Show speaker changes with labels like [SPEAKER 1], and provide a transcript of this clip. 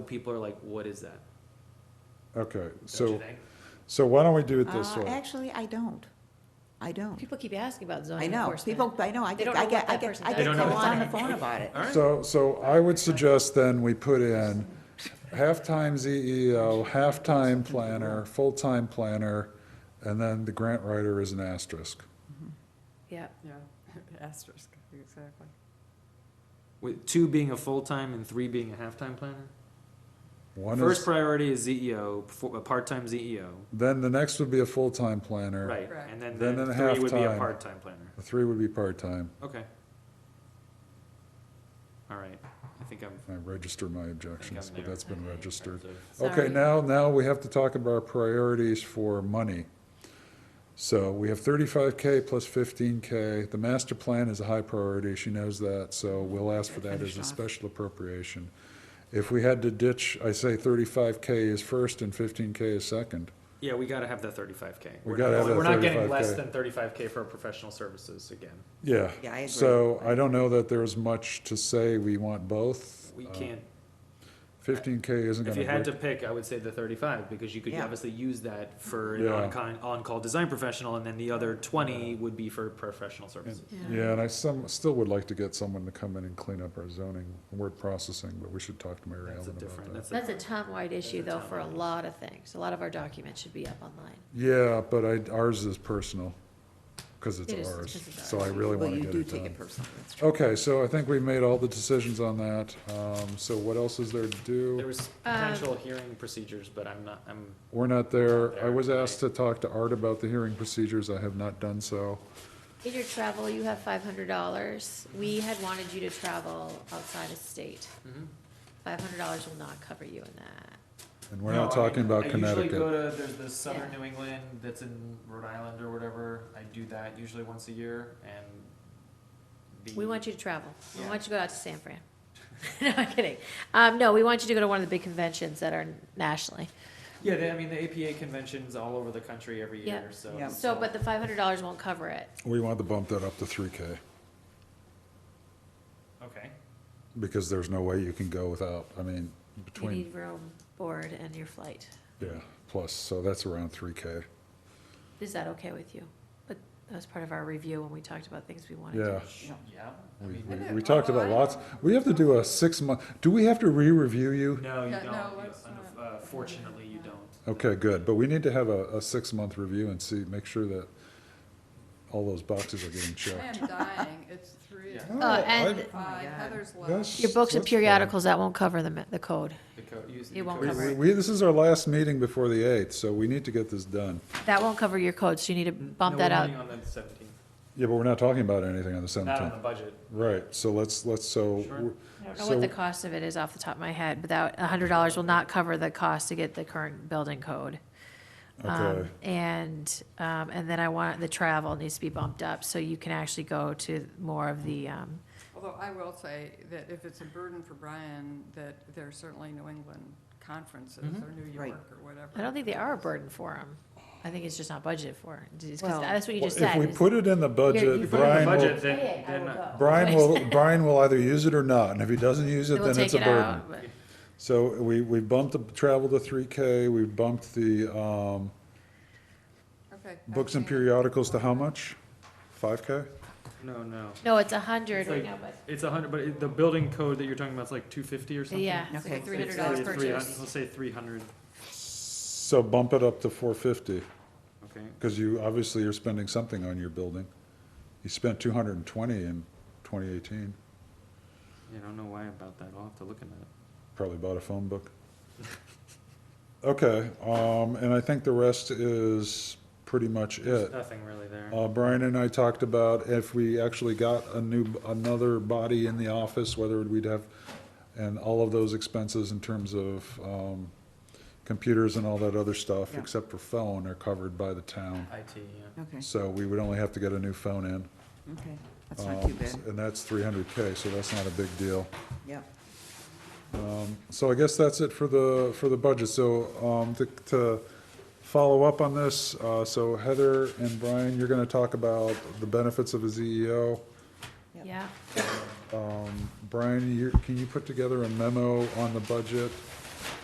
[SPEAKER 1] People are like, what is that?
[SPEAKER 2] Okay,
[SPEAKER 1] Don't you
[SPEAKER 2] so,
[SPEAKER 1] think?
[SPEAKER 2] so why don't we do it this
[SPEAKER 3] Uh,
[SPEAKER 2] way?
[SPEAKER 3] Actually, I don't. I don't.
[SPEAKER 4] People keep asking about
[SPEAKER 3] I
[SPEAKER 4] zoning
[SPEAKER 3] know,
[SPEAKER 4] enforcement.
[SPEAKER 3] people, I know, I
[SPEAKER 4] They
[SPEAKER 3] get,
[SPEAKER 4] don't
[SPEAKER 3] I
[SPEAKER 4] know
[SPEAKER 3] get,
[SPEAKER 4] what
[SPEAKER 3] I
[SPEAKER 4] that
[SPEAKER 3] get,
[SPEAKER 4] person
[SPEAKER 3] I
[SPEAKER 4] does.
[SPEAKER 3] get
[SPEAKER 1] They don't know
[SPEAKER 3] calls
[SPEAKER 1] what
[SPEAKER 3] on the
[SPEAKER 1] that
[SPEAKER 3] phone about it.
[SPEAKER 1] All right.
[SPEAKER 2] So, so I would suggest then we put in half-time ZEO, half-time planner, full-time planner, and then the grant writer is an asterisk.
[SPEAKER 4] Yeah,
[SPEAKER 5] Yeah, asterisk, exactly.
[SPEAKER 1] With two being a full-time and three being a half-time planner?
[SPEAKER 2] One
[SPEAKER 1] First
[SPEAKER 2] is,
[SPEAKER 1] priority is ZEO, fo- a part-time ZEO,
[SPEAKER 2] then the next would be a full-time planner.
[SPEAKER 1] right,
[SPEAKER 5] Correct.
[SPEAKER 1] and then,
[SPEAKER 2] Then
[SPEAKER 1] then
[SPEAKER 2] then
[SPEAKER 1] three would be a
[SPEAKER 2] half-time.
[SPEAKER 1] part-time planner,
[SPEAKER 2] The three would be part-time.
[SPEAKER 1] okay. All right, I think I'm,
[SPEAKER 2] I register my
[SPEAKER 1] I think
[SPEAKER 2] objections,
[SPEAKER 1] I'm
[SPEAKER 2] but
[SPEAKER 1] there
[SPEAKER 2] that's been
[SPEAKER 1] in
[SPEAKER 2] registered.
[SPEAKER 1] terms of-
[SPEAKER 2] Okay,
[SPEAKER 4] Sorry.
[SPEAKER 2] now, now we have to talk about our priorities for money. So we have thirty-five K plus fifteen K. The master plan is a high priority, she knows that, so we'll ask for that as
[SPEAKER 3] Finish
[SPEAKER 2] a
[SPEAKER 3] off.
[SPEAKER 2] special appropriation. If we had to ditch, I say thirty-five K is first and fifteen K is second.
[SPEAKER 1] Yeah, we gotta have that thirty-five K.
[SPEAKER 2] We gotta have that
[SPEAKER 1] We're not getting
[SPEAKER 2] 35K.
[SPEAKER 1] less than thirty-five K for our professional services again,
[SPEAKER 2] Yeah.
[SPEAKER 3] Yeah, I agree.
[SPEAKER 2] So I don't know that there's much to say we want both. Uh,
[SPEAKER 1] we can't,
[SPEAKER 2] Fifteen K isn't
[SPEAKER 1] if you had
[SPEAKER 2] gonna
[SPEAKER 1] to
[SPEAKER 2] break.
[SPEAKER 1] pick, I would say the thirty-five, because you could
[SPEAKER 3] Yeah.
[SPEAKER 1] obviously use that for an
[SPEAKER 2] Yeah.
[SPEAKER 1] on-con, on-call design professional, and then the other twenty would be for professional services.
[SPEAKER 2] Yeah, and I some, still would like to get someone to come in and clean up our zoning, word processing, but we should talk to Mary Ellen
[SPEAKER 1] That's a
[SPEAKER 2] about that.
[SPEAKER 1] different, that's a.
[SPEAKER 4] That's a town-wide issue, though, for a
[SPEAKER 1] town-wide.
[SPEAKER 4] lot of things. A lot of our documents should be up online.
[SPEAKER 2] Yeah, but I, ours is personal, because it's
[SPEAKER 4] It is,
[SPEAKER 2] ours,
[SPEAKER 4] 'cause it's
[SPEAKER 2] so I
[SPEAKER 4] ours.
[SPEAKER 2] really
[SPEAKER 3] Well,
[SPEAKER 2] wanna
[SPEAKER 3] you
[SPEAKER 2] get
[SPEAKER 3] do
[SPEAKER 2] it
[SPEAKER 3] take
[SPEAKER 2] done.
[SPEAKER 3] it personally,
[SPEAKER 1] Oh.
[SPEAKER 3] that's true.
[SPEAKER 2] Okay, so I think we've made all the decisions on that, um, so what else is there to
[SPEAKER 1] There
[SPEAKER 2] do?
[SPEAKER 4] Uh,
[SPEAKER 1] was potential hearing procedures, but I'm not, I'm,
[SPEAKER 2] We're not there, I was
[SPEAKER 1] There,
[SPEAKER 2] asked to talk to Art about the hearing procedures, I have not done so.
[SPEAKER 4] In your travel, you have five hundred dollars. We had wanted you to travel outside of state.
[SPEAKER 1] mm-hmm.
[SPEAKER 4] Five hundred dollars will not cover you in that.
[SPEAKER 2] And we're not talking about
[SPEAKER 1] I usually
[SPEAKER 2] Connecticut.
[SPEAKER 1] go to, there's the southern
[SPEAKER 4] Yeah.
[SPEAKER 1] New England that's in Rhode Island or whatever, I do that usually once a year, and the.
[SPEAKER 4] We want you to travel. We
[SPEAKER 1] Yeah.
[SPEAKER 4] want you to go out to San Fran. No, I'm kidding. Um, no, we want you to go to one of the big conventions that are nationally.
[SPEAKER 1] Yeah, they, I mean, the APA convention's all over the country every
[SPEAKER 4] Yeah.
[SPEAKER 1] year, so.
[SPEAKER 3] Yeah.
[SPEAKER 4] So, but the five hundred dollars won't cover it.
[SPEAKER 2] We want to bump that up to three K,
[SPEAKER 1] Okay,
[SPEAKER 2] because there's no way you can go without, I mean,
[SPEAKER 4] You
[SPEAKER 2] between,
[SPEAKER 4] need room, board, and your flight.
[SPEAKER 2] yeah, plus, so that's around three K.
[SPEAKER 4] Is that okay with you? But that was part of our review when we talked about things we wanted
[SPEAKER 2] Yeah,
[SPEAKER 4] to.
[SPEAKER 1] yeah, I
[SPEAKER 2] we,
[SPEAKER 1] mean,
[SPEAKER 2] we,
[SPEAKER 5] Okay,
[SPEAKER 2] we talked
[SPEAKER 5] well,
[SPEAKER 2] about
[SPEAKER 5] I-
[SPEAKER 2] lots, we have to do a six month, do we have to re-review you?
[SPEAKER 1] no, you
[SPEAKER 5] Yeah,
[SPEAKER 1] don't,
[SPEAKER 5] no,
[SPEAKER 1] You-
[SPEAKER 5] let's
[SPEAKER 1] unf-
[SPEAKER 5] not.
[SPEAKER 1] uh, fortunately, you don't.
[SPEAKER 2] Okay, good, but we need to have a, a six-month review and see, make sure that all those boxes are getting
[SPEAKER 5] I
[SPEAKER 2] checked.
[SPEAKER 5] am dying, it's three,
[SPEAKER 1] Yeah.
[SPEAKER 2] No,
[SPEAKER 4] Uh, and-
[SPEAKER 2] I-
[SPEAKER 5] five,
[SPEAKER 3] God.
[SPEAKER 5] Heather's
[SPEAKER 2] that's-
[SPEAKER 5] left.
[SPEAKER 4] Your books and
[SPEAKER 2] that's fine.
[SPEAKER 4] periodicals, that won't cover the, the code.
[SPEAKER 1] The co- you-
[SPEAKER 4] It won't
[SPEAKER 1] the
[SPEAKER 2] We-
[SPEAKER 1] codes-
[SPEAKER 4] cover
[SPEAKER 2] We,
[SPEAKER 4] it.
[SPEAKER 2] we- this is our last meeting before the eighth, so we need to get this done.
[SPEAKER 4] That won't cover your code, so you need to
[SPEAKER 1] No,
[SPEAKER 4] bump that
[SPEAKER 1] we're
[SPEAKER 4] out.
[SPEAKER 1] meeting on the seventeenth,
[SPEAKER 2] Yeah, but we're not talking about anything
[SPEAKER 1] not on
[SPEAKER 2] on the
[SPEAKER 1] the
[SPEAKER 2] seventeenth.
[SPEAKER 1] budget,
[SPEAKER 2] Right, so let's, let's, so,
[SPEAKER 1] Sure.
[SPEAKER 2] we're-
[SPEAKER 4] I don't know
[SPEAKER 2] so,
[SPEAKER 4] what the cost of it is off the top of my head, but that, a hundred dollars will not cover the cost to get the current building code. Um,
[SPEAKER 2] okay,
[SPEAKER 4] And, um, and then I want, the travel needs to be bumped up, so you can actually go to more of the, um,
[SPEAKER 5] Although I will say that if it's a burden for Brian, that there are certainly New England conferences
[SPEAKER 2] Mm-hmm.
[SPEAKER 1] Mhm.
[SPEAKER 5] or New
[SPEAKER 3] Right.
[SPEAKER 5] York or whatever.
[SPEAKER 4] I don't think they are a burden for them. I think it's just not budgeted for. Just 'cause
[SPEAKER 3] Well-
[SPEAKER 4] that's what you just
[SPEAKER 2] if
[SPEAKER 4] said.
[SPEAKER 2] we
[SPEAKER 4] is-
[SPEAKER 2] put it in the
[SPEAKER 4] you
[SPEAKER 2] budget,
[SPEAKER 4] put it in the
[SPEAKER 2] Brian will,
[SPEAKER 1] budget, then-
[SPEAKER 4] Hey, I
[SPEAKER 1] then,
[SPEAKER 4] will
[SPEAKER 1] uh,
[SPEAKER 4] go.
[SPEAKER 2] Brian will, Brian will either use it or not, and if he doesn't use it,
[SPEAKER 4] Then we'll
[SPEAKER 2] then it's
[SPEAKER 4] take
[SPEAKER 2] a
[SPEAKER 4] it
[SPEAKER 2] burden.
[SPEAKER 4] out, but-
[SPEAKER 2] So we, we bumped the travel to three K, we bumped the, um,
[SPEAKER 5] Okay. I've
[SPEAKER 2] Books and
[SPEAKER 5] seen it.
[SPEAKER 2] periodicals to how much? Five K?
[SPEAKER 1] no, no.
[SPEAKER 4] No, it's a hundred
[SPEAKER 1] It's
[SPEAKER 4] right now,
[SPEAKER 1] like-
[SPEAKER 4] but
[SPEAKER 1] It's a hundred, but it- the building code that you're talking about is like two fifty or something?
[SPEAKER 4] yeah, it's
[SPEAKER 3] Okay.
[SPEAKER 4] like a
[SPEAKER 3] It's
[SPEAKER 4] three hundred
[SPEAKER 1] Let's
[SPEAKER 4] dollars
[SPEAKER 1] say
[SPEAKER 4] per
[SPEAKER 1] 300
[SPEAKER 4] person.
[SPEAKER 1] Let's say three hundred,
[SPEAKER 2] So bump it up to four fifty,
[SPEAKER 1] okay,
[SPEAKER 2] because you, obviously you're spending something on your building. You spent two hundred and twenty in twenty eighteen,
[SPEAKER 1] yeah, I don't know why about that, I'll have to look into it.
[SPEAKER 2] probably bought a phone book. Okay, um, and I think the rest is pretty much
[SPEAKER 1] There's
[SPEAKER 2] it.
[SPEAKER 1] nothing really there.
[SPEAKER 2] Uh, Brian and I talked about if we actually got a new, another body in the office, whether we'd have, and all of those expenses in terms of, um, computers and all that other stuff,
[SPEAKER 3] Yeah.
[SPEAKER 2] except for phone, are covered by the town.
[SPEAKER 1] IT, yeah.
[SPEAKER 3] Okay,
[SPEAKER 2] So we would only have to get a new phone in.
[SPEAKER 3] okay,
[SPEAKER 1] Oh,
[SPEAKER 3] that's not too
[SPEAKER 2] um,
[SPEAKER 3] bad,
[SPEAKER 2] And that's three hundred K, so that's not a big deal.
[SPEAKER 3] yep.
[SPEAKER 2] Um, So I guess that's it for the, for the budget. So, um, to, to follow up on this, uh, so Heather and Brian, you're gonna talk about the E benefits of a ZEO.
[SPEAKER 3] Yeah.
[SPEAKER 4] Yeah,
[SPEAKER 2] Um, Brian, you, can you put together a memo on the budget